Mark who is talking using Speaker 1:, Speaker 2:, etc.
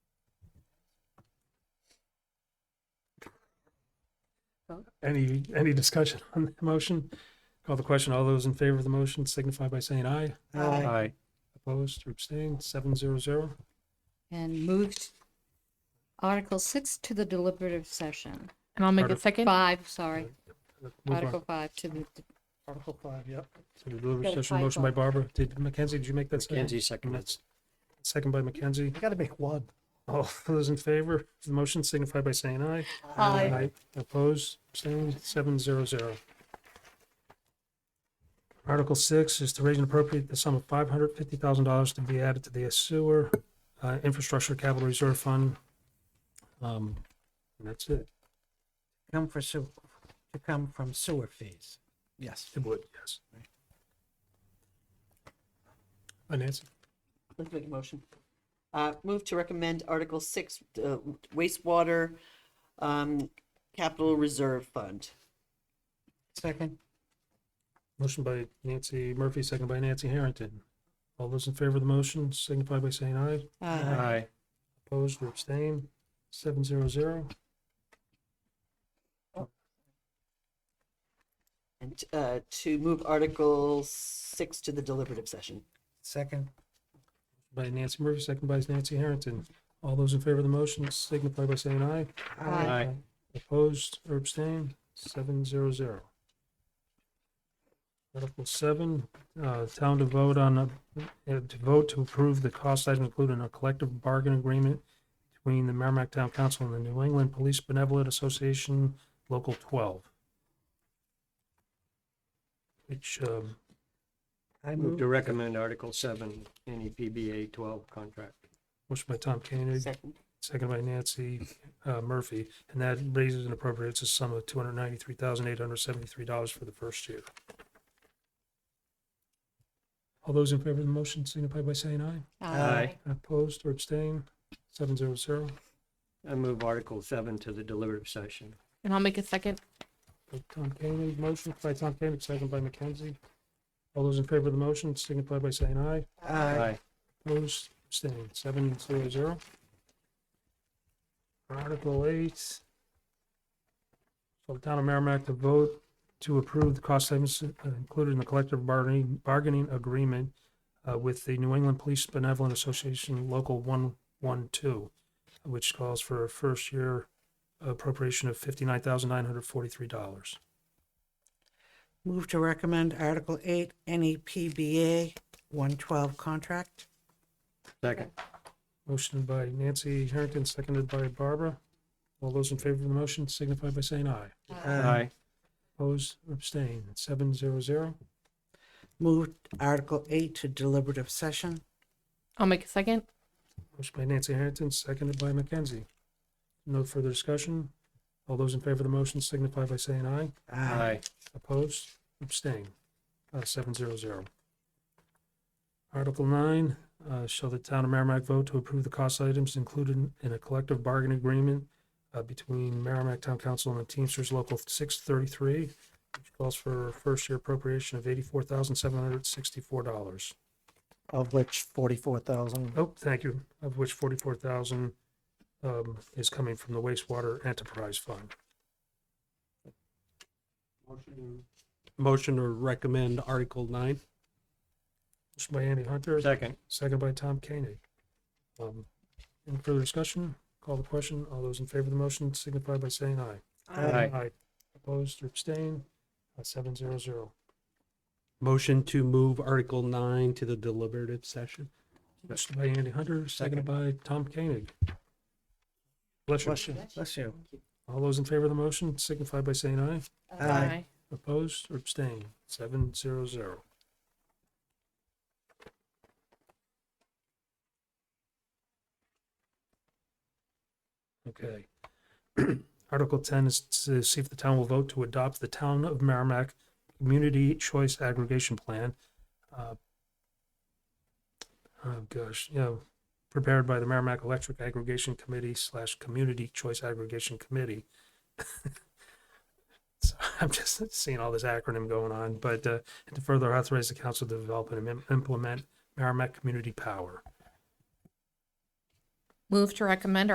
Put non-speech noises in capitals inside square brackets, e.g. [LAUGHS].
Speaker 1: Any, any discussion on the motion? Call the question. All those in favor of the motion signify by saying aye.
Speaker 2: Aye.
Speaker 3: Aye.
Speaker 1: Opposed or abstained, seven zero zero.
Speaker 2: and moved Article six to the deliberative session.
Speaker 4: And I'll make
Speaker 1: Artic-
Speaker 4: a second.
Speaker 2: Five, sorry,
Speaker 1: Move on.
Speaker 2: Article five to the,
Speaker 1: Article five, yep. So the
Speaker 2: Got
Speaker 1: deliberative
Speaker 2: a
Speaker 1: session motion by
Speaker 2: typo.
Speaker 1: Barbara. Did Mackenzie, did you make that second?
Speaker 3: Mackenzie seconded.
Speaker 1: That's- Second by Mackenzie. I gotta make one. All those in favor of the motion signify by saying aye.
Speaker 2: Aye.
Speaker 1: Opposed, abstained, seven zero zero. Article six is to raise and appropriate the sum of five hundred fifty thousand dollars to be added to the sewer uh, infrastructure capital reserve fund. Um, and that's it.
Speaker 5: come for sewer, to come from sewer fees.
Speaker 3: Yes.
Speaker 1: It would, yes. Uh, Nancy,
Speaker 6: Let's make a motion. Uh, move to recommend Article Six, uh, wastewater, um, capital reserve fund.
Speaker 5: Second,
Speaker 1: motion by Nancy Murphy, second by Nancy Harrington. All those in favor of the motion signify by saying aye.
Speaker 3: Aye.
Speaker 1: Opposed or abstained, seven zero zero.
Speaker 6: And, uh, to move Article Six to the deliberative session.
Speaker 5: second,
Speaker 1: By Nancy Murphy, second by Nancy Harrington. All those in favor of the motion signify by saying aye.
Speaker 2: Aye.
Speaker 3: Aye.
Speaker 1: Opposed or abstained, seven zero zero. Article seven, uh, town to vote on, a- uh, to vote to approve the cost item included in a collective bargain agreement between the Merrimack Town Council and the New England Police Benevolent Association, Local twelve. Which, um,
Speaker 5: I
Speaker 3: Move
Speaker 5: move,
Speaker 3: to recommend Article seven, any PBA twelve contract.
Speaker 1: motion by Tom Koenig,
Speaker 6: Second.
Speaker 1: Second by Nancy uh, Murphy, and that raises and appropriates a sum of two hundred ninety-three thousand eight hundred seventy-three dollars for the first year. All those in favor of the motion signify by saying aye.
Speaker 2: uh,
Speaker 1: Opposed or abstained, seven zero zero.
Speaker 3: I move Article seven to the deliberative session.
Speaker 4: And I'll make a second.
Speaker 1: Tom Koenig, motion by Tom Koenig, second by McKenzie. All those in favor of the motion signify by saying aye.
Speaker 5: aye,
Speaker 1: Opposed, abstained, seven zero zero. Article eight. For the town of Merrimack to vote to approve the cost savings uh, included in the collective bargaining, bargaining agreement uh, with the New England Police Benevolent Association Local one one two, which calls for a first year appropriation of fifty-nine thousand nine hundred forty-three dollars.
Speaker 5: move to recommend Article eight, any PBA one twelve contract.
Speaker 3: Second.
Speaker 1: Motion by Nancy Harrington, seconded by Barbara. All those in favor of the motion signify by saying aye.
Speaker 3: Aye.
Speaker 1: Opposed or abstained, seven zero zero.
Speaker 5: Move Article eight to deliberative session.
Speaker 4: I'll make a second.
Speaker 1: Motion by Nancy Harrington, seconded by Mackenzie. No further discussion. All those in favor of the motion signify by saying aye.
Speaker 3: Aye.
Speaker 1: Opposed, abstained, uh, seven zero zero. Article nine, uh, shall the town of Merrimack vote to approve the cost items included in a collective bargain agreement uh, between Merrimack Town Council and the Teamsters Local six thirty-three, which calls for a first-year appropriation of eighty-four thousand seven hundred sixty-four dollars.
Speaker 5: Of which forty-four thousand.
Speaker 1: Oh, thank you, of which forty-four thousand um is coming from the wastewater enterprise fund.
Speaker 7: Motion to recommend Article nine.
Speaker 1: Motion by Andy Hunter,
Speaker 3: Second.
Speaker 1: second by Tom Koenig. Um, any further discussion? Call the question. All those in favor of the motion signify by saying aye.
Speaker 3: Aye.
Speaker 1: Opposed or abstained? Uh, Seven zero zero.
Speaker 7: Motion to move Article nine to the deliberative session.
Speaker 1: Motion by Andy Hunter, seconded by Tom Koenig. Bless you.
Speaker 5: Bless you, bless you.
Speaker 1: All those in favor of the motion signify by saying aye.
Speaker 5: Aye.
Speaker 1: Opposed or abstained? Seven zero zero. Okay. [CLEARS THROAT] Article ten is to see if the town will vote to adopt the Town of Merrimack Community Choice Aggregation Plan. uh, Oh, gosh, you know, prepared by the Merrimack Electric Aggregation Committee slash Community Choice Aggregation Committee. So [LAUGHS] I'm just seeing all this acronym going on, but uh, to further authorize the council to develop and im- implement Merrimack Community Power.
Speaker 4: Move to recommend